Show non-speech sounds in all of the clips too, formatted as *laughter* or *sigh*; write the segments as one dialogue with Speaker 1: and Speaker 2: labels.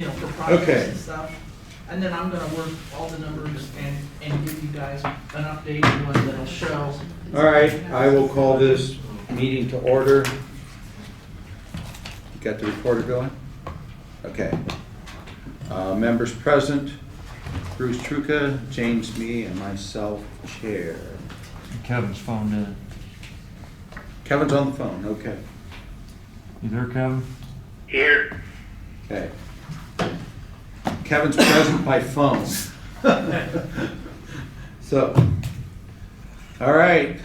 Speaker 1: Okay.
Speaker 2: projects and stuff. And then I'm gonna work all the numbers and, and give you guys an updated one that'll show.
Speaker 1: All right, I will call this meeting to order. Got the recorder going? Okay. Uh, Members present, Bruce Truca, James Me, and myself, Chair.
Speaker 3: Kevin's phoned in.
Speaker 1: Kevin's on the phone, okay.
Speaker 3: You there, Kevin?
Speaker 4: Here,
Speaker 1: Okay. Kevin's present by phone. *laughs* So, all right,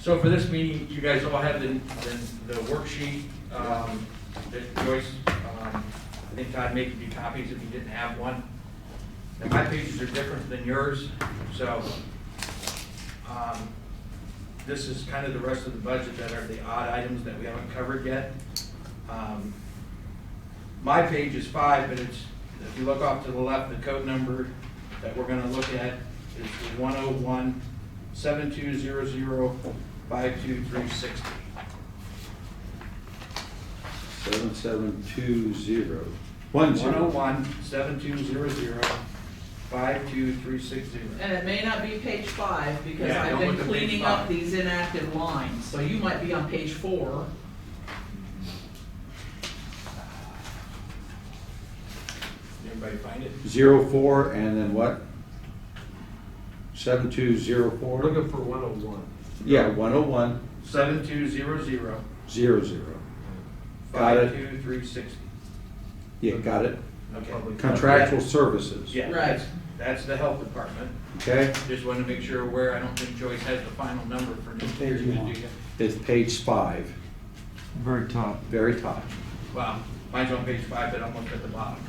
Speaker 5: So for this meeting, you guys all have the, the- the worksheet, um, that Joyce, um, I think Todd made you copies if you didn't have one. And my pages are different than yours, so, um, this is kind of the rest of the budget that are the odd items that we haven't covered yet. Um, My page is five, but it's, if you look off to the left, the code number that we're gonna look at is one oh one seven two zero zero five two three sixty.
Speaker 1: 7720, one
Speaker 5: One oh
Speaker 1: zero.
Speaker 5: one seven two zero zero five two three six zero.
Speaker 2: And it may not be page five, because
Speaker 5: Yeah,
Speaker 2: I've
Speaker 5: don't
Speaker 2: been
Speaker 5: look at page
Speaker 2: cleaning up
Speaker 5: five.
Speaker 2: these inactive lines, so you might be on page four.
Speaker 5: Everybody find it?
Speaker 1: Zero four, and then what? Seven two zero four?
Speaker 6: Looking for one oh one.
Speaker 1: Yeah, one oh one,
Speaker 5: Seven two zero zero
Speaker 1: zero zero. Got it.
Speaker 5: five two three sixty.
Speaker 1: Yeah, got it.
Speaker 5: Okay.
Speaker 1: Contractual services.
Speaker 5: Yeah, that's, that's the health department.
Speaker 1: Okay,
Speaker 5: Just wanted to make sure where, I don't think Joyce has the final number for next year. do you?
Speaker 1: it's page five,
Speaker 3: Very top.
Speaker 1: very top.
Speaker 5: Wow, mine's on page five, but I'm looking at the bottom.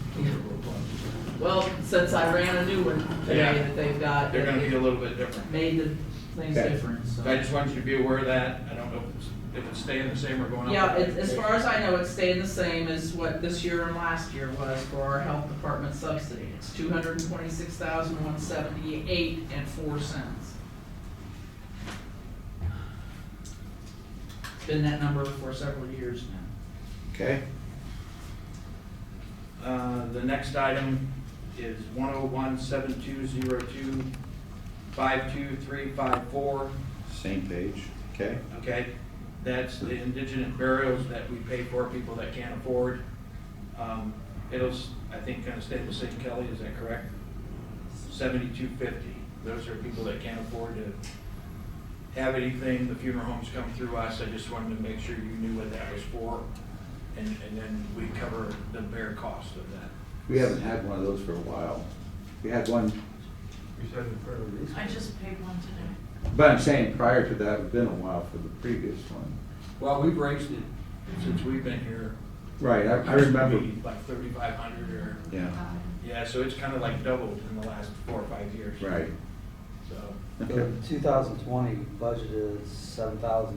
Speaker 2: Well, since I ran a new one
Speaker 5: Yeah.
Speaker 2: today that they've got,
Speaker 5: They're gonna be a
Speaker 2: it
Speaker 5: little bit different.
Speaker 2: made the things
Speaker 1: Okay.
Speaker 2: different, so.
Speaker 5: So I just want you to be aware of that. I don't know if it's, if it's staying the same or going up.
Speaker 2: Yeah, it- as far as I know, it's staying the same as what this year and last year was for our health department subsidy. It's two hundred and twenty-six thousand, one seventy-eight and four cents. Been that number for several years now.
Speaker 1: Okay,
Speaker 5: Uh, the next item is one oh one seven two zero two five two three five four,
Speaker 1: same page, okay?
Speaker 5: okay? That's the indigent burials that we pay for, people that can't afford. Um, it'll, s- I think, kind of stay the same, Kelly, is that correct? Seventy-two fifty. Those are people that can't afford to have anything. The funeral homes come through us. I just wanted to make sure you knew what that was for. And, and then we cover the bare cost of that.
Speaker 1: We haven't had one of those for a while. We had one,
Speaker 6: You said in front of these.
Speaker 7: I just paid one today.
Speaker 1: but I'm saying prior to that, it's been a while for the previous one.
Speaker 5: Well, we've raised it since we've been here.
Speaker 1: Right, I, I remember,
Speaker 5: Maybe Like thirty-five hundred or,
Speaker 1: yeah,
Speaker 7: Uh,
Speaker 5: yeah, so it's kind of like doubled in the last four or five years.
Speaker 1: right,
Speaker 5: So,
Speaker 1: okay,
Speaker 8: The 2020 budget is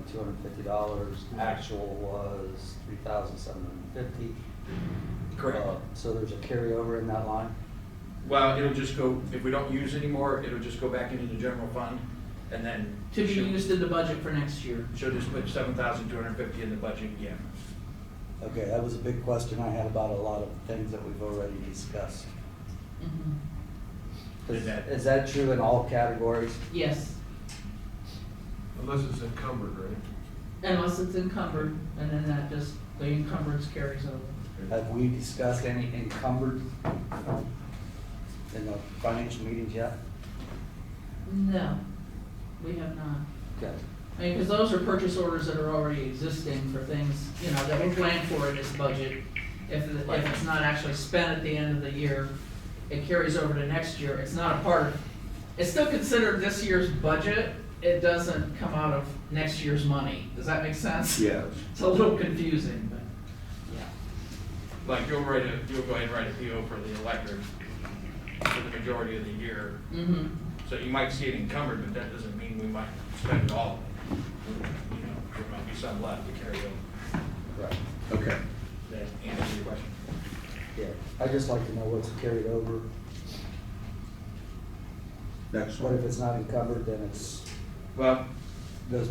Speaker 8: $7,250, actual was $3,750.
Speaker 5: correct.
Speaker 8: Uh, So there's a carryover in that line?
Speaker 5: Well, it'll just go, if we don't use anymore, it'll just go back into the general fund and then.
Speaker 2: To be
Speaker 5: she'll-
Speaker 2: used in the budget for next year.
Speaker 5: She'll just put seven thousand two hundred fifty in the budget again.
Speaker 8: Okay, that was a big question I had about a lot of things that we've already discussed.
Speaker 7: Mm-hmm.
Speaker 5: Is
Speaker 8: Is
Speaker 5: that-
Speaker 8: is that true in all categories?
Speaker 2: Yes,
Speaker 6: Unless it's encumbered, right?
Speaker 2: unless it's encumbered, and then that just, the encumbrance carries over.
Speaker 8: Have we discussed any encumbered in the financial meetings yet?
Speaker 2: No, we have not.
Speaker 8: Okay.
Speaker 2: I mean, because those are purchase orders that are already existing for things, you know, that were planned for in this budget. If, it- if it's not actually spent at the end of the year, it carries over to next year, it's not a part of, it's still considered this year's budget, it doesn't come out of next year's money, does that make sense?
Speaker 1: yes.
Speaker 2: It's a little confusing, but, yeah.
Speaker 5: Like you'll write a, you'll go ahead and write a PO for the electric for the majority of the year.
Speaker 2: Mm-hmm,
Speaker 5: So you might see it encumbered, but that doesn't mean we might spend it all. of it. You know, there might be some left to carry over.
Speaker 8: Right.
Speaker 1: Okay,
Speaker 5: That answers your question.
Speaker 8: Yeah, I'd just like to know what's carried over.
Speaker 1: next
Speaker 8: What
Speaker 1: one.
Speaker 8: if it's not encumbered, then it's,
Speaker 5: Well,
Speaker 8: goes